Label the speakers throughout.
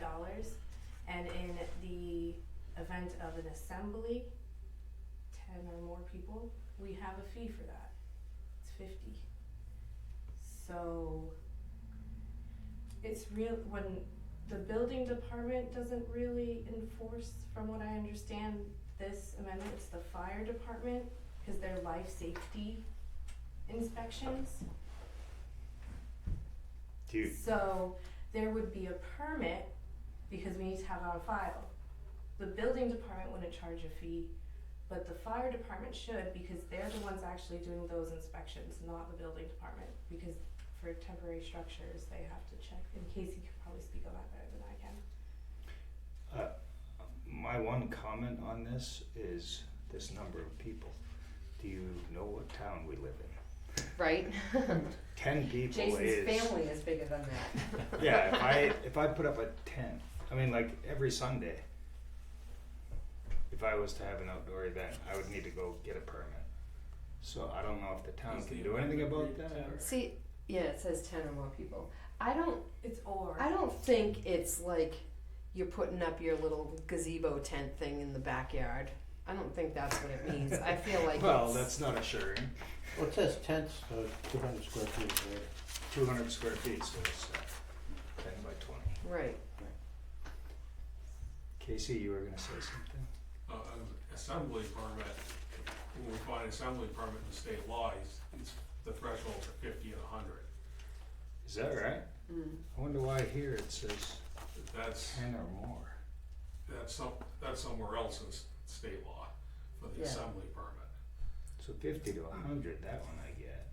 Speaker 1: dollars. And in the event of an assembly, ten or more people, we have a fee for that. It's fifty. So it's real, when the building department doesn't really enforce, from what I understand, this amendment, it's the fire department, cause their life safety inspections.
Speaker 2: Do you,
Speaker 1: So there would be a permit because we need to have it on file. The building department wouldn't charge a fee, but the fire department should because they're the ones actually doing those inspections, not the building department. Because for temporary structures, they have to check, and Casey could probably speak on that better than I can.
Speaker 2: my one comment on this is this number of people. Do you know what town we live in?
Speaker 3: right?
Speaker 2: Ten people is.
Speaker 4: Jason's family is bigger than that.
Speaker 2: Yeah, if I if I put up a tent, I mean like every Sunday. If I was to have an outdoor event, I would need to go get a permit. So I don't know if the town
Speaker 5: Is
Speaker 2: can
Speaker 5: the
Speaker 2: do anything about
Speaker 5: amendment
Speaker 2: that.
Speaker 5: read
Speaker 2: or-
Speaker 3: See, yeah, it says ten or more people. I don't,
Speaker 1: It's or.
Speaker 3: I don't think it's like you're putting up your little gazebo tent thing in the backyard. I don't think that's what it means. I feel like
Speaker 2: Well,
Speaker 3: it's,
Speaker 2: that's not assuring.
Speaker 6: Well, it says tents, uh, two hundred square feet, right?
Speaker 2: Two hundred square feet, so it's uh, ten by twenty.
Speaker 3: right.
Speaker 2: Casey, you were gonna say something.
Speaker 5: uh, an assembly permit, when we find an assembly permit in the state law, it's, it's the threshold's are fifty and a hundred.
Speaker 2: Is that right?
Speaker 3: Mm.
Speaker 2: I wonder why here it says
Speaker 5: That's,
Speaker 2: ten or more.
Speaker 5: that's some, that's somewhere else in s- state law for the
Speaker 3: Yeah.
Speaker 5: assembly permit.
Speaker 2: So fifty to hundred, that one I get.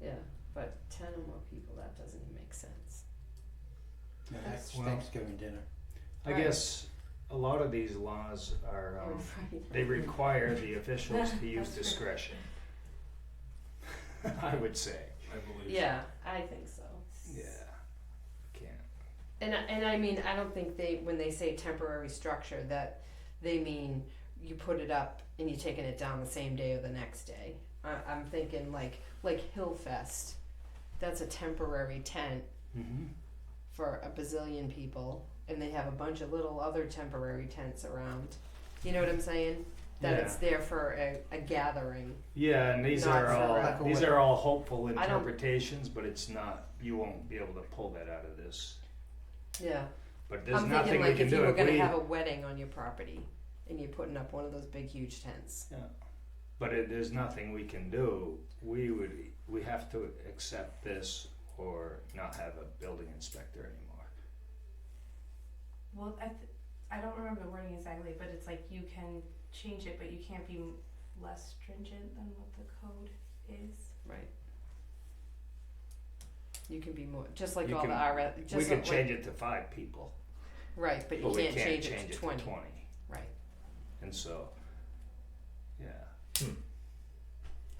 Speaker 3: Yeah, but ten or more people, that doesn't even make sense.
Speaker 6: Yeah,
Speaker 1: That's-
Speaker 6: that's
Speaker 2: Well-
Speaker 6: Thanksgiving dinner.
Speaker 2: I
Speaker 3: Right.
Speaker 2: guess a lot of these laws are um,
Speaker 3: Right.
Speaker 2: They require the officials to use
Speaker 1: That's right.
Speaker 2: discretion. I would say.
Speaker 5: I believe.
Speaker 3: Yeah, I think so.
Speaker 2: Yeah. Can't.
Speaker 3: And I- and I mean, I don't think they when they say temporary structure that they mean you put it up and you're taking it down the same day or the next day. I, I'm thinking like like Hillfest, that's a temporary tent
Speaker 2: Mm-hmm.
Speaker 3: for a bazillion people, and they have a bunch of little other temporary tents around. You know what I'm saying? That it's there for a, a gathering.
Speaker 2: Yeah, and these
Speaker 3: Not
Speaker 2: are
Speaker 3: for
Speaker 2: all
Speaker 3: lack
Speaker 6: of
Speaker 2: these
Speaker 6: what-
Speaker 2: are all hopeful
Speaker 3: I don't-
Speaker 2: interpretations, but it's not. You won't be able to pull that out of this.
Speaker 3: Yeah.
Speaker 2: But there's
Speaker 3: I'm
Speaker 2: nothing
Speaker 3: thinking like
Speaker 2: we can
Speaker 3: if
Speaker 2: do.
Speaker 3: you were
Speaker 2: If
Speaker 3: gonna
Speaker 2: we-
Speaker 3: have a wedding on your property and you're putting up one of those big huge tents.
Speaker 2: but it, there's nothing we can do. We would we have to accept this or not have a building inspector anymore.
Speaker 1: Well, I, th- I don't remember the wording exactly, but it's like you can change it, but you can't be m- less stringent than what the code is.
Speaker 3: Right. You can be more, just like
Speaker 2: You
Speaker 3: all
Speaker 2: can-
Speaker 3: the RF, just
Speaker 2: we could
Speaker 3: like,
Speaker 2: change it to five people,
Speaker 3: right, but you
Speaker 2: but we
Speaker 3: can't, change, it to twenty.
Speaker 2: twenty.
Speaker 3: Right.
Speaker 2: And so, yeah.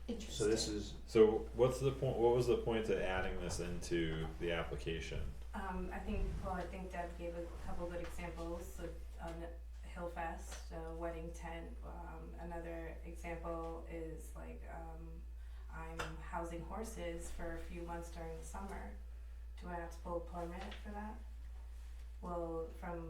Speaker 3: Interesting.
Speaker 2: So this is
Speaker 7: So what's the point? What was the point of adding this into the application?
Speaker 1: Um, I think, well, I think Deb gave a couple good examples, so, um, Hillfest, a wedding tent, um, another example is like, um, I'm housing horses for a few months during the summer, do I have to pull a permit for that? Well, from,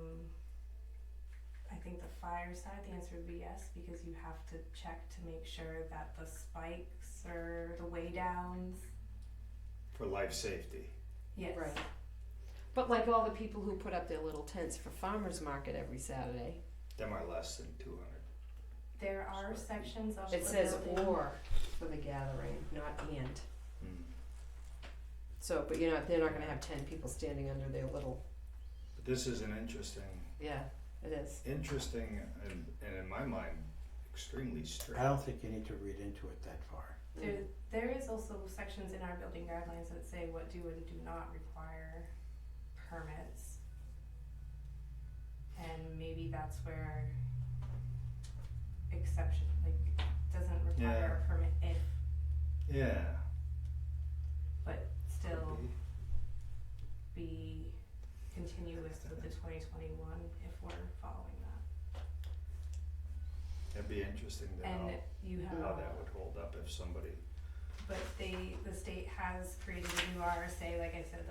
Speaker 1: I think the fire side, the answer would be yes, because you have to check to make sure that the spikes or the way downs,
Speaker 2: for life safety.
Speaker 1: yes.
Speaker 3: Right. But like all the people who put up their little tents for farmers market every Saturday,
Speaker 2: Them are less than two hundred.
Speaker 1: There are sections of the
Speaker 3: it says
Speaker 1: building-
Speaker 3: or for the gathering, not and. Hmm. So, but you're not, they're not gonna have ten people standing under their little,
Speaker 2: But this is an interesting,
Speaker 3: yeah, it is.
Speaker 2: interesting, and, and in my mind, extremely strict.
Speaker 6: I don't think you need to read into it that far.
Speaker 1: There, there is also sections in our building guidelines that say what do and do not require permits. And maybe that's where exception, like, doesn't require a permit if,
Speaker 2: Yeah.
Speaker 1: but
Speaker 2: could
Speaker 1: still
Speaker 2: be.
Speaker 1: be continuous with the twenty twenty-one if we're following that.
Speaker 2: That'd be interesting to
Speaker 1: And
Speaker 2: know
Speaker 1: you
Speaker 2: how
Speaker 3: uh,
Speaker 1: have,
Speaker 2: that would hold up if somebody
Speaker 1: but they, the state has created a new RSA, like I said, that